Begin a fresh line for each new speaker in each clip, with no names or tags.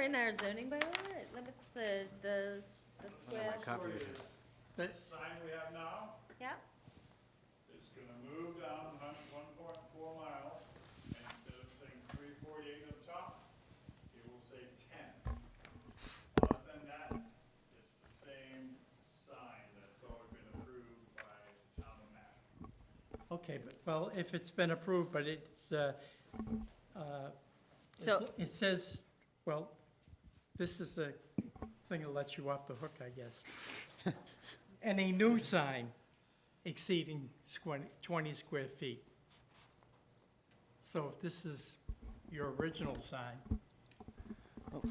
In our zoning bylaw, it limits the, the, the square,
copies are-
That-
sign we have now
yeah,
is gonna move down one, one point four miles, and instead of saying three forty-eight up top, it will say ten. Other than that, it's the same sign that's always been approved by the town of Mashpee.
Okay, but, well, if it's been approved, but it's, uh, uh,
So-
it's- it says, well, this is the thing that lets you off the hook, I guess. Any new sign exceeding squen- 20 square feet. So if this is your original sign. it's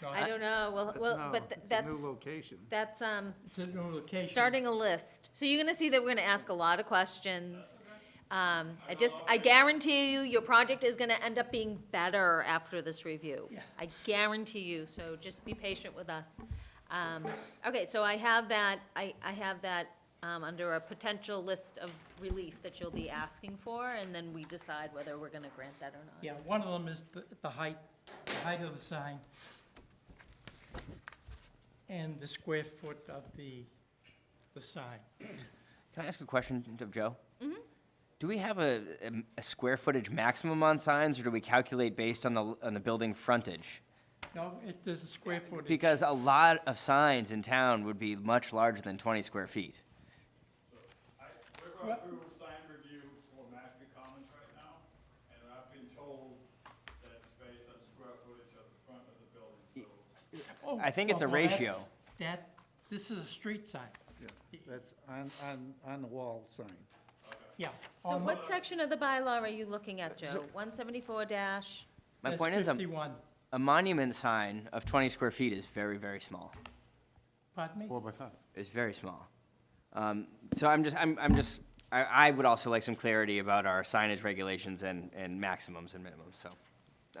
not-
Oh. I don't know, well, well,
No,
but th-
it's a
that's,
New location.
that's, um,
It's a new location.
starting a list. So you're gonna see that we're gonna ask a lot of questions. Um, I just, I guarantee you, your project is gonna end up being better after this review.
Yeah.
I guarantee you, so just be patient with us. Um, okay, so I have that, I, I have that, um, under a potential list of relief that you'll be asking for, and then we decide whether we're gonna grant that or not.
Yeah, one of them is the, the height, the height of the sign. And the square foot of the, the sign.
Can I ask a question of Joe? Do we have a, a, a square footage maximum on signs, or do we calculate based on the, on the building frontage?
No, it, there's a square footage.
Because a lot of signs in town would be much larger than twenty square feet.
I, we're going through sign review for Mashpee Commons right now, and I've been told that it's based on square footage of the front of the building, so.
Oh,
I think it's a
well, that's-
ratio.
That, this is a street sign,
Yeah, That's on, on, on the wall sign.
yeah.
So
on-
what section of the bylaw are you looking at, Joe? One seventy-four dash,
My
that's
point is, um, a,
Fifty-one,
a monument sign of twenty square feet is very, very small.
pardon me?
Four by five.
It's very small. Um, so I'm just, I'm, I'm just, I, I would also like some clarity about our signage regulations and, and maximums and minimums, so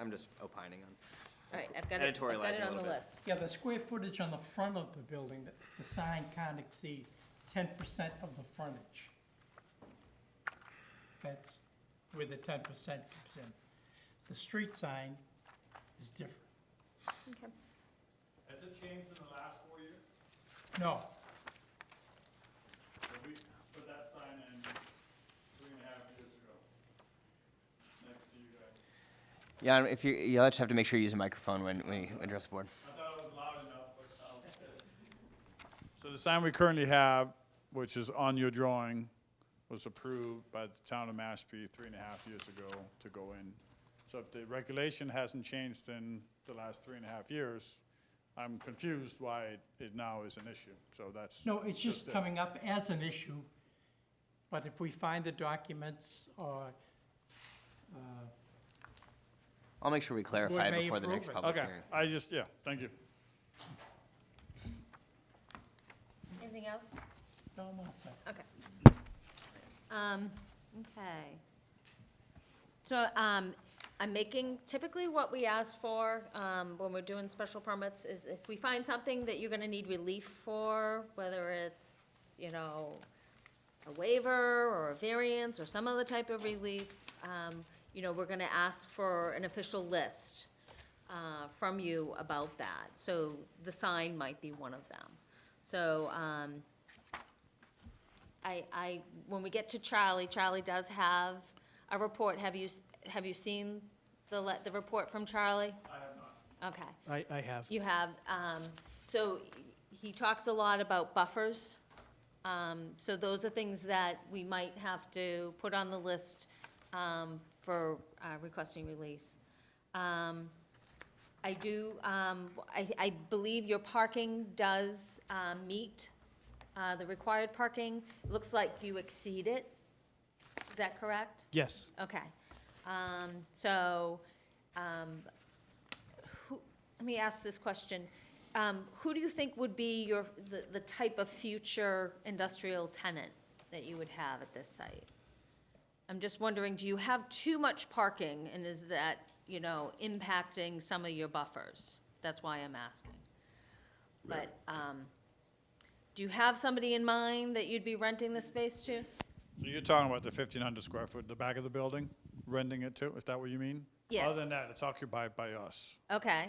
I'm just opining on.
all right, I've got it, I've got it
Editorializing
on
a
the
little bit.
list.
Yeah, the square footage on the front of the building, the, the sign can't exceed ten percent of the frontage. That's where the ten percent comes in. The street sign is different.
Okay.
Has it changed in the last four years?
No,
So we put that sign in three and a half years ago, next to you guys.
Yeah, if you, you'll just have to make sure you use a microphone when, when you address the board.
I thought it was loud enough, but I'll. So the sign we currently have, which is on your drawing, was approved by the town of Mashpee three and a half years ago to go in. So if the regulation hasn't changed in the last three and a half years, I'm confused why it- it now is an issue, so that's.
no, it's just
it.
coming up as an issue. But if we find the documents or, uh,
I'll make sure we clarify
may
before the next
approve it.
public
Okay,
hearing.
I just, yeah, thank you.
Anything else?
no, I'm all set.
Okay. Um, okay. So, um, I'm making, typically what we ask for, um, when we're doing special permits is if we find something that you're gonna need relief for, whether it's, you know, a waiver or a variance or some other type of relief, um, you know, we're gonna ask for an official list, uh, from you about that. So the sign might be one of them. So, um, I, I, when we get to Charlie, Charlie does have a report. Have you, s- have you seen the, le- the report from Charlie? I have not. Okay.
I, I have.
You have, um, so he talks a lot about buffers. Um, so those are things that we might have to put on the list, um, for, uh, requesting relief. Um, I do, um, I, I believe your parking does, um, meet, uh, the required parking. Looks like you exceed it. Is that correct?
Yes.
Okay. Um, so, um, who, let me ask this question. Um, who do you think would be your, the, the type of future industrial tenant that you would have at this site? I'm just wondering, do you have too much parking and is that, you know, impacting some of your buffers? That's why I'm asking. But, um, do you have somebody in mind that you'd be renting the space to?
So you're talking about the fifteen hundred square foot, the back of the building, renting it to, is that what you mean?
Yes.
Other than that, it's occupied by us.
Okay,